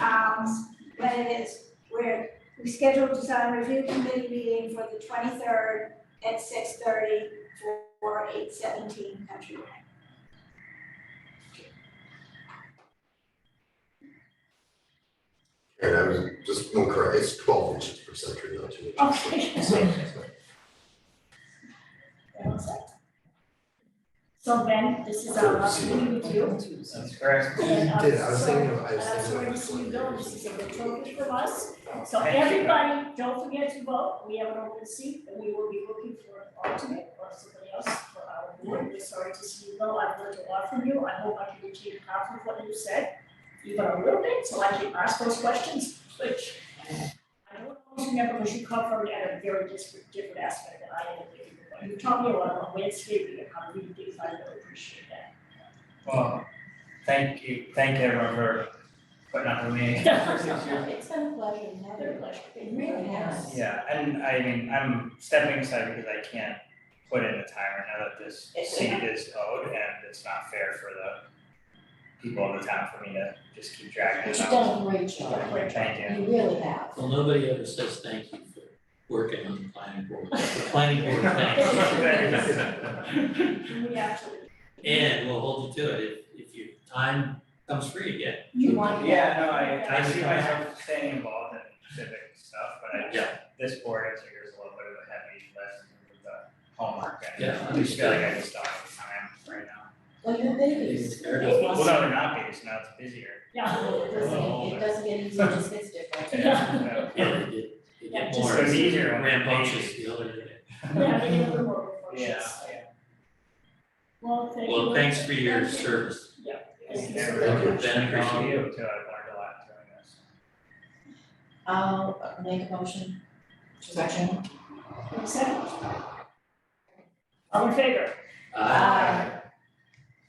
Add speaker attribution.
Speaker 1: um, when it is, where we scheduled design review committee meeting for the twenty-third at six thirty for eight seventeen Country Way.
Speaker 2: And I was just, no, correct, it's twelve inches per century, not two inches.
Speaker 1: Okay.
Speaker 2: So,
Speaker 3: So Ben, this is our opportunity with you.
Speaker 4: That's correct.
Speaker 3: And, uh,
Speaker 2: Did, I was thinking, of- I
Speaker 3: so,
Speaker 2: was
Speaker 3: uh, so
Speaker 2: thinking.
Speaker 3: we're
Speaker 2: of
Speaker 3: just gonna go, this is a good token
Speaker 2: like-
Speaker 3: from us. So
Speaker 4: Thank you.
Speaker 3: everybody, don't forget to vote. We have an open seat and we will be looking for an alternate or somebody else for our board. We're sorry to see you go. I've learned a lot from you. I hope I can achieve half of what you said, even a little bit, so I can ask those questions, which I don't always remember because you come from it at a very disparate, different aspect than I am. But You taught me a lot about landscaping and how to read things. I really appreciate that.
Speaker 4: Well, thank you, thank everyone for putting up with me.
Speaker 5: It's been a pleasure, now
Speaker 3: They're a pleasure.
Speaker 5: It really has.
Speaker 4: Yeah, and I mean, I'm stepping aside because I can't put in the time right now that this seat is owed and it's not fair for the people of the town for me to just keep dragging
Speaker 5: But
Speaker 4: it
Speaker 5: you've
Speaker 4: out.
Speaker 5: done a great job,
Speaker 4: Thank you.
Speaker 5: you really have.
Speaker 6: Well, nobody ever says thank you for working on the planning board. The planning board thanks.
Speaker 4: Thanks.
Speaker 3: Can we actually,
Speaker 6: you. And we'll hold you to it if, if your time comes free again.
Speaker 3: you want that?
Speaker 4: Yeah, no, I I see myself staying involved in civic stuff, but I
Speaker 6: Yeah.
Speaker 4: this board has years a little bit of a heavy lift with the homework and
Speaker 6: Yeah,
Speaker 4: I just feel like I just don't have time right now.
Speaker 5: Well, your babies,
Speaker 6: Fair enough.
Speaker 4: Well, no, they're not based, now it's busier.
Speaker 3: Yeah.
Speaker 5: it doesn't, it doesn't get easier, it just gets different.
Speaker 4: Yeah.
Speaker 6: Yeah, they get, they
Speaker 3: Yeah,
Speaker 6: get
Speaker 3: just-
Speaker 6: more
Speaker 4: So it's easier when they're
Speaker 6: rambunctious
Speaker 4: babies.
Speaker 6: the other day.
Speaker 3: Yeah, they get a little more
Speaker 4: Yeah,
Speaker 3: reflections. Well, thank you.
Speaker 6: Well, thanks for your service.
Speaker 3: Thank you.
Speaker 4: yeah.
Speaker 2: Thank you.
Speaker 6: Ben, appreciate
Speaker 4: Thank
Speaker 6: it.
Speaker 4: you too, I've learned a lot doing this.
Speaker 5: I'll make a motion to adjourn.
Speaker 3: Second. All in favor?
Speaker 6: Uh,
Speaker 5: Aye.